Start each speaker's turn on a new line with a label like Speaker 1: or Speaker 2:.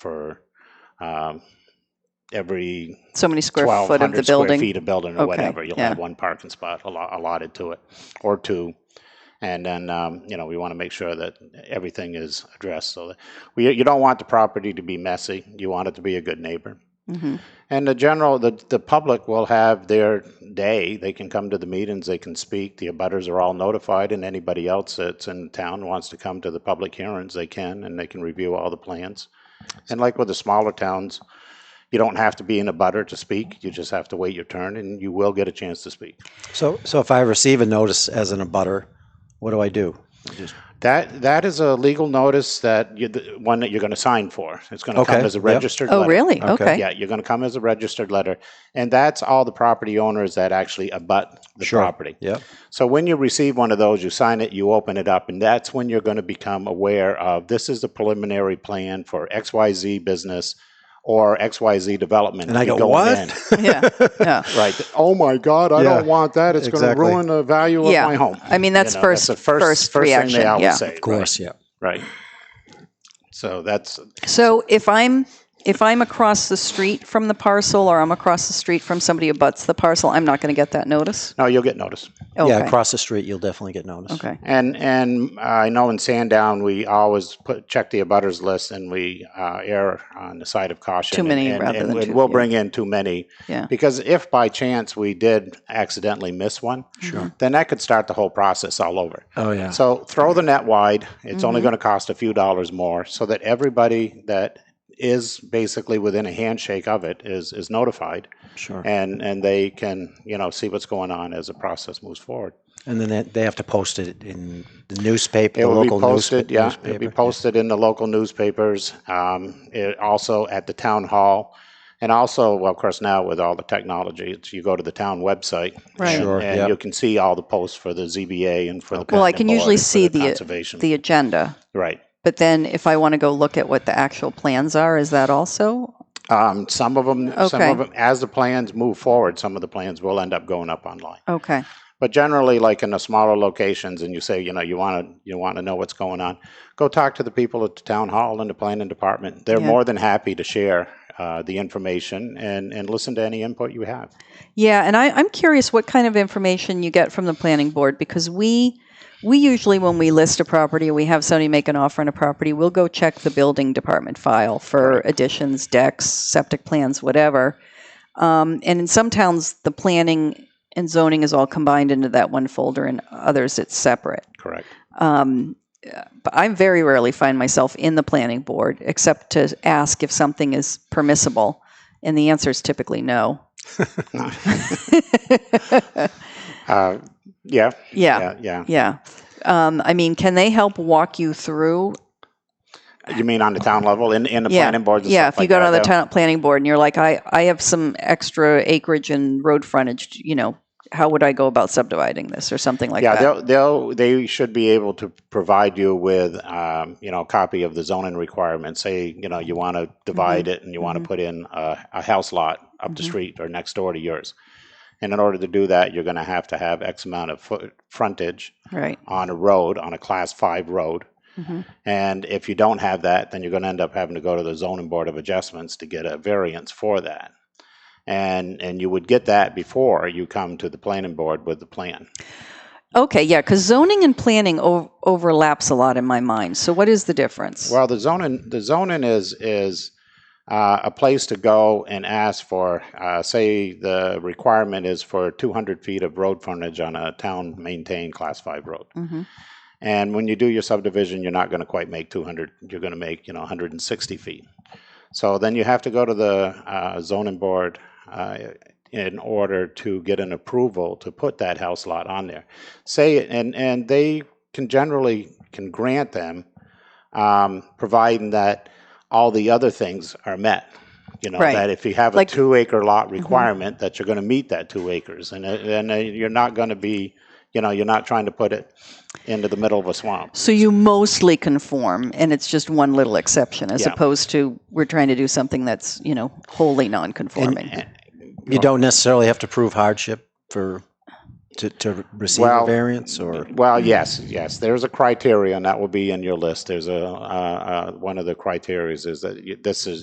Speaker 1: for um, every
Speaker 2: So many square foot of the
Speaker 1: 1,200 square
Speaker 2: building?
Speaker 1: feet of building
Speaker 2: Okay,
Speaker 1: or whatever. You'll
Speaker 2: yeah.
Speaker 1: have one parking spot allo- allotted to it, or two. And then, um, you know, we want to make sure that everything is addressed. So that we, you don't want the property to be messy. You want it to be a good neighbor.
Speaker 2: Mhm.
Speaker 1: And the general, the, the public will have their day. They can come to the meetings, they can speak. The abutters are all notified, and anybody else that's in town wants to come to the public hearings, they can, and they can review all the plans. And like with the smaller towns, you don't have to be in a butter to speak. You just have to wait your turn, and you will get a chance to speak.
Speaker 3: So, so if I receive a notice as an abutter, what do I do?
Speaker 1: That, that is a legal notice that you, the one that you're going to sign for. It's going to
Speaker 3: Okay,
Speaker 1: come as a
Speaker 3: yep.
Speaker 1: registered letter.
Speaker 2: Oh, really?
Speaker 3: Okay.
Speaker 2: Okay.
Speaker 1: Yeah, you're going to come as a registered letter, and that's all the property owners that actually abut the
Speaker 3: Sure.
Speaker 1: property.
Speaker 3: Yeah.
Speaker 1: So when you receive one of those, you sign it, you open it up, and that's when you're going to become aware of this is the preliminary plan for XYZ business or XYZ development.
Speaker 3: And I
Speaker 1: You're
Speaker 3: go,
Speaker 1: going
Speaker 3: what?
Speaker 1: in.
Speaker 2: Yeah, yeah.
Speaker 1: Right. Oh my God, I
Speaker 3: Yeah,
Speaker 1: don't want that. It's
Speaker 3: exactly.
Speaker 1: going to ruin the value
Speaker 2: Yeah.
Speaker 1: of my home.
Speaker 2: I
Speaker 1: You
Speaker 2: mean, that's
Speaker 1: know,
Speaker 2: first,
Speaker 1: the
Speaker 2: first
Speaker 1: first
Speaker 2: reaction,
Speaker 1: thing they always
Speaker 2: yeah.
Speaker 1: say.
Speaker 3: Of course. Yeah.
Speaker 1: Right. So that's
Speaker 2: So if I'm, if I'm across the street from the parcel or I'm across the street from somebody who butts the parcel, I'm not going to get that notice?
Speaker 1: no, you'll get notice.
Speaker 3: Yeah.
Speaker 2: Okay,
Speaker 3: Across the street, you'll definitely get noticed.
Speaker 2: okay.
Speaker 1: And and uh, I know in Sandown we always put check the abutters list and we uh, err on the side of caution.
Speaker 2: Too many
Speaker 1: and, and-
Speaker 2: rather
Speaker 1: and
Speaker 2: than
Speaker 1: we-
Speaker 2: too
Speaker 1: we'll
Speaker 2: few.
Speaker 1: bring in too many.
Speaker 2: Yeah.
Speaker 1: Because if by chance we did accidentally miss one,
Speaker 2: Mm-hmm.
Speaker 3: Sure.
Speaker 1: then that could start the whole process all over.
Speaker 3: Oh, yeah.
Speaker 1: So throw the net wide. It's
Speaker 2: Mm-hmm.
Speaker 1: only going to cost a few dollars more, so that everybody that is basically within a handshake of it is is notified,
Speaker 3: Sure.
Speaker 1: and and they can you know see what's going on as the process moves forward.
Speaker 3: And then they, they have to post it in the newspaper,
Speaker 1: It
Speaker 3: the
Speaker 1: will be
Speaker 3: local
Speaker 1: posted,
Speaker 3: newspa-
Speaker 1: yeah. It'll be
Speaker 3: newspaper.
Speaker 1: posted in the local newspapers, um, it, also at the town hall. And also, well, of course, now with all the technology, it's, you go to the town website.
Speaker 2: Right.
Speaker 1: and-
Speaker 3: Sure,
Speaker 1: And
Speaker 3: yep.
Speaker 1: you can see all the posts for the ZBA and for the.
Speaker 2: Well, I
Speaker 1: planning
Speaker 2: can usually
Speaker 1: board, for
Speaker 2: see the-
Speaker 1: Conservation.
Speaker 2: The agenda,
Speaker 1: Right.
Speaker 2: but then if I want to go look at what the actual plans are, is that also?
Speaker 1: Um, some of them, some
Speaker 2: Okay.
Speaker 1: of them, as the plans move forward, some of the plans will end up going up online.
Speaker 2: Okay,
Speaker 1: But generally, like in the smaller locations, and you say, you know, you want to, you want to know what's going on, go talk to the people at the town hall and the planning department. They're
Speaker 2: Yeah.
Speaker 1: more than happy to share uh, the information and and listen to any input you have.
Speaker 2: yeah, and I, I'm curious what kind of information you get from the planning board, because we, we usually, when we list a property, we have somebody make an offer on a property, we'll go check the building department file for additions, decks, septic plans, whatever. Um, and in some towns, the planning and zoning is all combined into that one folder, and others it's separate.
Speaker 1: Correct.
Speaker 2: Um, but I very rarely find myself in the planning board except to ask if something is permissible, and the answer is typically no. yeah,
Speaker 1: Uh, yeah,
Speaker 2: yeah.
Speaker 1: yeah, yeah,
Speaker 2: Um, I mean, can they help walk you through?
Speaker 1: You mean on the town level in in the
Speaker 2: Yeah,
Speaker 1: planning boards? And
Speaker 2: yeah,
Speaker 1: stuff
Speaker 2: if
Speaker 1: like
Speaker 2: you go
Speaker 1: that,
Speaker 2: to the
Speaker 1: though?
Speaker 2: town planning board and you're like, I, I have some extra acreage and road frontage, you know, how would I go about subdividing this or something like
Speaker 1: yeah,
Speaker 2: that?
Speaker 1: they'll, they'll they should be able to provide you with um, you know a copy of the zoning requirements. Say you know you want to
Speaker 2: Mm-hmm.
Speaker 1: divide it and you want to
Speaker 2: Mhm.
Speaker 1: put in a, a house lot up the
Speaker 2: Mhm.
Speaker 1: street or next door to yours. And in order to do that, you're going to have to have X amount of foot frontage
Speaker 2: Right.
Speaker 1: on a road on a class five road.
Speaker 2: Mhm.
Speaker 1: And if you don't have that, then you're going to end up having to go to the zoning board of adjustments to get a variance for that. And and you would get that before you come to the planning board with the plan.
Speaker 2: Okay, yeah, because zoning and planning o- overlaps a lot in my mind. So what is the difference?
Speaker 1: Well, the zoning, the zoning is, is uh, a place to go and ask for, uh, say, the requirement is for 200 feet of road frontage on a town-maintained Class 5 road.
Speaker 2: Mhm.
Speaker 1: And when you do your subdivision, you're not going to quite make 200, you're going to make, you know, 160 feet. So then you have to go to the uh, zoning board uh, in order to get an approval to put that house lot on there. Say, and, and they can generally, can grant them, um, providing that all the other things are met. You know,
Speaker 2: Right.
Speaker 1: that if you have a
Speaker 2: Like- Mm-hmm.
Speaker 1: two acre lot requirement, that you're going to meet that two acres. And, it- and uh, you're not going to be, you know, you're not trying to put it into the middle of a swamp.
Speaker 2: So you mostly conform, and it's just one little exception, as
Speaker 1: Yeah.
Speaker 2: opposed to we're trying to do something that's you know wholly non-conforming.
Speaker 3: You don't necessarily have to prove hardship for to, to receive a
Speaker 1: Well,
Speaker 3: variance or?
Speaker 1: Well, yes, yes. There's a criteria, and that will be in your list. There's a, uh, uh, one of the criterias is that you- this is,